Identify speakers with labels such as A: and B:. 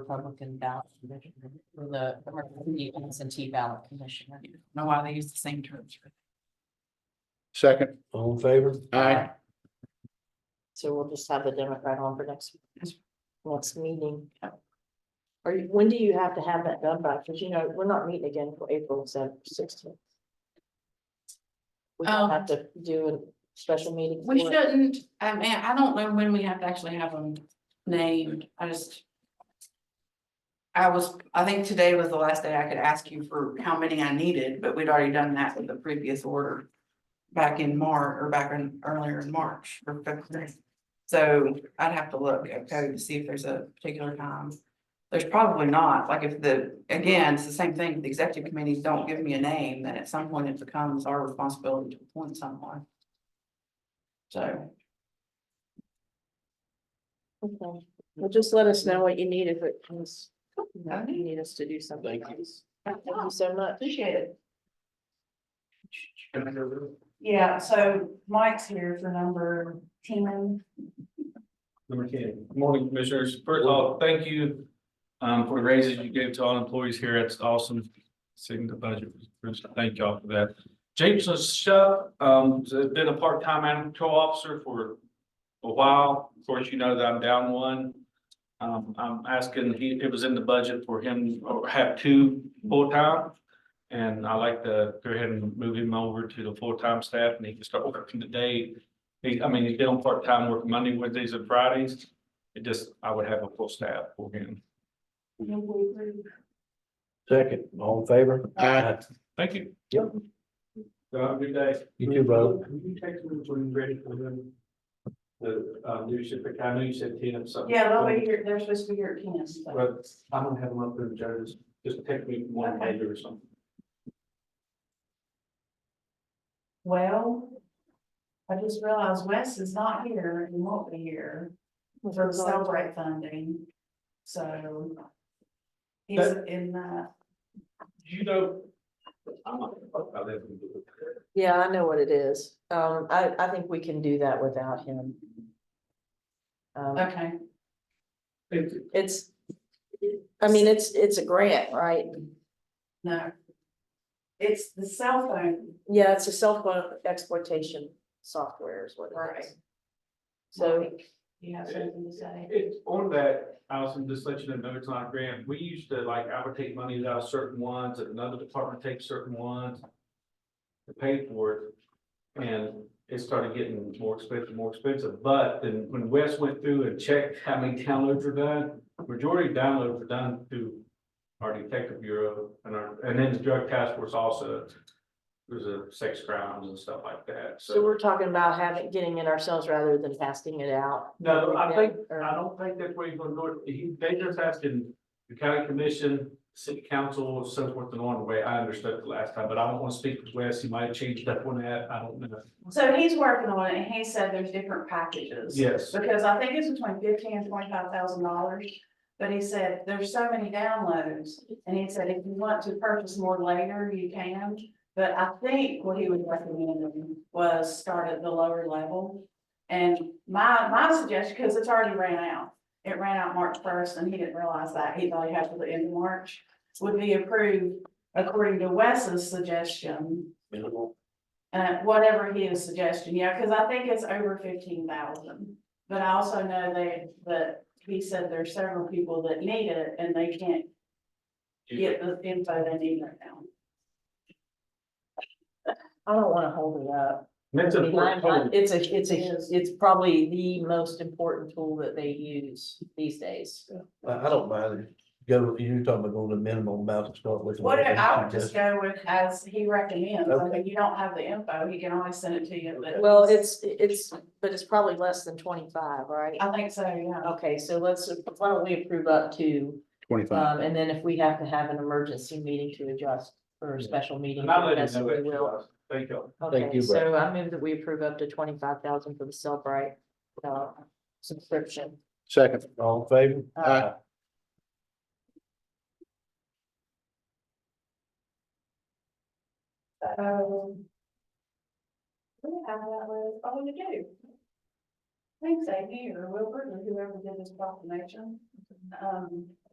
A: Republican ballot commissioner, or the Democratic absentee ballot commissioner. I don't Know why they use the same terms.
B: Second.
C: All in favor?
B: Aye.
D: So we'll just have the Democrat on for next, next meeting. Or when do you have to have that done by? Because you know, we're not meeting again for April sixteenth. We don't have to do a special meeting.
A: We
D: for it.
A: shouldn't, I mean, I don't know when we have to actually have them named, I just. I was, I think today was the last day I could ask you for how many I needed, but we'd already done that with the previous order. Back in March, or back in, earlier in March, or February. So I'd have to look at code to see if there's a particular time. There's probably not, like if the, again, it's the same thing, if the executive committees don't give me a name, then at some point it becomes our responsibility to appoint someone, so.
D: Okay. Well, just let us know what you need if it comes, you know, if you need us to do something.
C: Thank you.
D: else. Thank you so much.
A: Appreciate it.
E: Yeah, so Mike's here for number ten.
F: Number ten. Good Morning, Commissioners. First of all, thank you um, for the raises you gave to all employees here. It's awesome. Seeing the budget, thank y'all for that. Jameson Shuck, um, has been a part-time animal control officer for a while. Of course, you know that I'm down one. Um, I'm asking, he, it was in the budget for him to have two full-time. And I like to go ahead and move him over to the full-time staff and he can start working today he, I mean, he's been on part-time work Monday, Wednesdays and Fridays. It just, I would have a full staff for him.
C: Second, all in favor?
B: Aye.
F: Thank you.
C: Yep.
F: Have a good day.
C: You too, brother.
F: Can you text me when you're ready for them? The, um, new ship, I know you said ten of something.
E: Yeah, they'll be here, they're supposed to be here at ten. so.
F: But I'm gonna have them up there, Jonas. Just text me one
E: Okay.
F: later or something.
E: Well, I just realized Wes is not here and won't be here for the celebrate funding, so. He's in the,
F: You know. I'm not gonna talk about that.
D: Yeah, I know what it is. Um, I, I think we can do that without him. Um,
E: okay,
F: It's,
D: it's, I mean, it's, it's a grant, right?
E: no. It's the cell phone,
D: Yeah, it's a cell phone exploitation software is what it is.
E: Right.
D: So,
E: you have something to say?
F: It's on that, Allison, just let you know, it's not a grant. We used to like, I would take money out of certain ones, and another department takes certain ones. To pay for it, and it started getting more expensive, more expensive, but then when Wes went through and checked how many downloads are done. Majority of downloads are done through our detective bureau and our, and then the drug task force also. There's a sex crimes and stuff like that,
D: so we're talking about having, getting it ourselves rather than passing it out.
F: No, I think,
D: Or-
F: I don't think that's where he's gonna do it. He, they just asking the county commission, city council, so forth and on the way. I understood the last time, but I don't wanna speak with Wes. He might have changed that one out. I don't know.
E: So he's working on it and he said there's different packages.
F: Yes,
E: Because I think it's between fifteen and twenty-five thousand dollars, but he said, there's so many downloads, and he said, if you want to purchase more later, you can. But I think what he was recommending was start at the lower level. And my, my suggestion, because it's already ran out, it ran out March first, and he didn't realize that, he thought he had to the end of March, would be approved according to Wes's suggestion,
C: Minimal.
E: uh, whatever he is suggesting, yeah, because I think it's over fifteen thousand. But I also know they, that he said there's several people that need it and they can't get the info they need right now.
D: I don't wanna hold it up.
F: that's
D: I mean,
F: important.
D: I- I-
F: total.
D: It's a, it's a, it's probably the most important tool that they use these days.
C: I, I don't mind. it. Go, you're talking about going to minimum amount to start with.
E: What I would just go with as he recommends, I mean, you don't have the info, he can always send it to you, but.
D: Well, it's, it's, but it's probably less than twenty-five, right?
E: I think so, yeah.
D: Okay, so let's, why don't we approve up to,
B: Twenty-five.
D: um, and then if we have to have an emergency meeting to adjust or a special meeting.
F: And I'll let
D: that's
F: you know
D: what we
F: that,
D: will.
F: Wes. Thank you.
C: Thank
D: Okay,
C: you,
D: so I move that we approve up to twenty-five thousand for the Cellbrite, uh, subscription.
B: Second.
C: All in favor?
B: Aye.
E: Um, We have that with, oh, you do. Thanks, Amy or Wilbur or whoever did this proclamation. Um,